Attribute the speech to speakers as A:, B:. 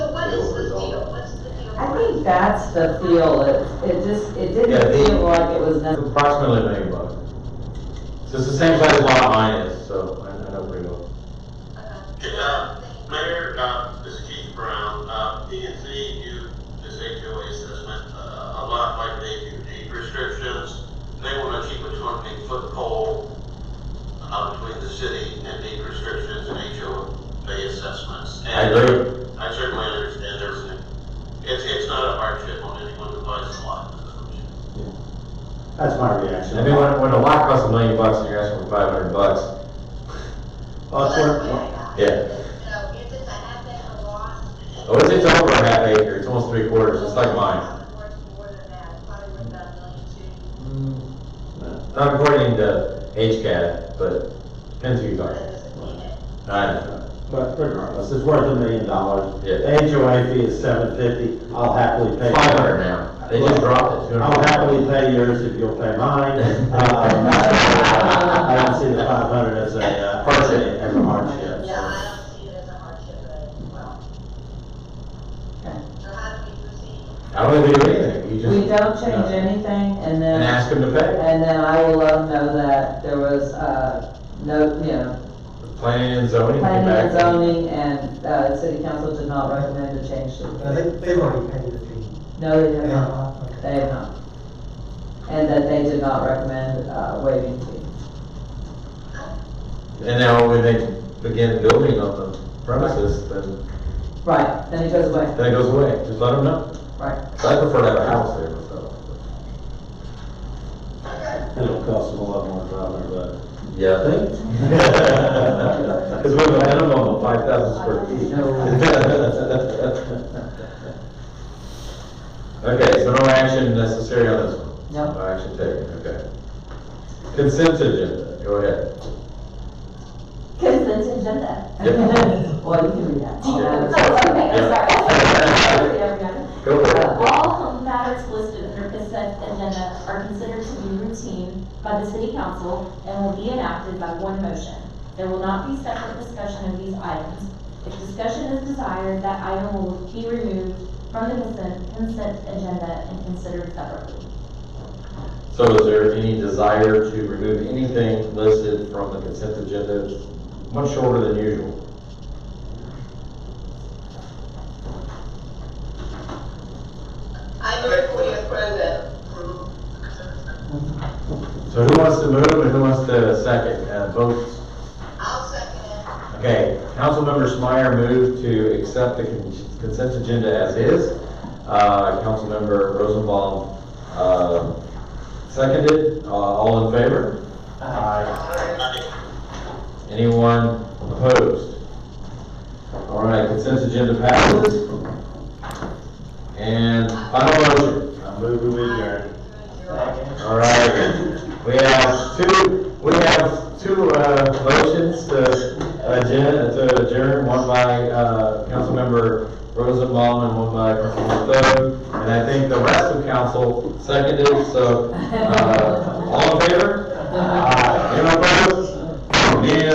A: think that's the feel, it, it just, it
B: Yeah,
A: didn't
B: they-
A: feel like it was necessary.
B: Approximately a million bucks. So it's the same size as lot mine is, so I I know pretty well.
C: Uh, Mayor, uh, this is Keith Brown, uh, P and Z do this HOA assessment, uh, a lot like they do deed restrictions. They wanna keep a twenty foot pole, uh, between the city and deed restrictions and HOA assessments.
B: I agree.
C: And I certainly understand there's, an- it's, it's not a hardship on anyone who buys a lot.
D: That's my
B: I mean,
D: reaction.
B: when, when a lot costs a million bucks and you're asking for five hundred bucks,
D: Uh, Also,
B: yeah.
E: So if it's a half acre lot.
B: Oh, it's, it's over a half acre, it's almost three quarters, it's like mine.
E: Worth more than that, probably worth about a million two.
B: Not according to HCAT, but depends who you
E: That
B: are.
E: doesn't mean it.
B: I know.
D: but regardless, it's worth a million dollars.
B: Yeah.
D: The HOA fee is seven fifty, I'll happily pay.
B: Five hundred now, they just dropped it. to
D: I'll happily pay yours if you'll pay mine. Um, I don't see the five hundred as a, uh, as a- as a hardship.
E: Yeah, I don't see it as a hardship as well. So how do we proceed?
B: I don't think we do anything, you
A: We
B: just,
A: don't change anything, and
B: and
A: then,
B: ask them to pay.
A: and then I will let them know that there was, uh, no, you know,
B: Planning and zoning, get
A: planning
B: back.
A: and zoning, and, uh, city council did not recommend a change to
F: I
A: the fee.
F: think they've already paid the fee.
A: No, they have
F: Yeah,
A: not,
F: okay.
A: they have not. And that they did not recommend, uh, waiving fee.
B: And now when they begin building on the premises, then,
A: Right, then it goes away,
B: then it goes away, just let them know.
A: right.
B: I prefer to have a house there myself.
D: It'll cost them a lot more dollars, but.
B: Yeah. Cause we have a minimum of five thousand square feet. Okay, so no action necessary on this one?
A: No.
B: No action taken, okay. Consent agenda, go ahead.
G: Consent agenda.
B: Yep.
A: Well, you can read that. Uh,
G: Oh,
A: All
G: okay,
A: that.
G: sorry. Yeah, we got it.
B: Go for
A: Uh,
B: it.
G: All matters listed under consent agenda are considered to be routine by the city council and will be enacted by one motion. There will not be separate discussion of these items. If discussion is desired, that item will be removed from the consent, consent agenda and considered separately.
B: So is there any desire to remove anything listed from the consent agenda? It's Much shorter than usual.
E: I move we approve it.
B: So who wants to move and who wants to second? Uh, votes?
E: I'll second
B: Okay, Councilmember Schmier moved to accept the con- consent agenda as is. Uh, Councilmember Rosenbaum, uh, seconded, Uh, all in favor? Anyone opposed? All right, consent agenda passes. And final motion.
D: I'm moving with your.
B: All right, we have two, we have two, uh, motions Uh, to adjourn, to adjourn, one by, uh, Councilmember Rosenbaum and one by Councilmember Thode. And I think the rest of council seconded, so, uh, all in favor? Anyone Uh, opposed? Meeting is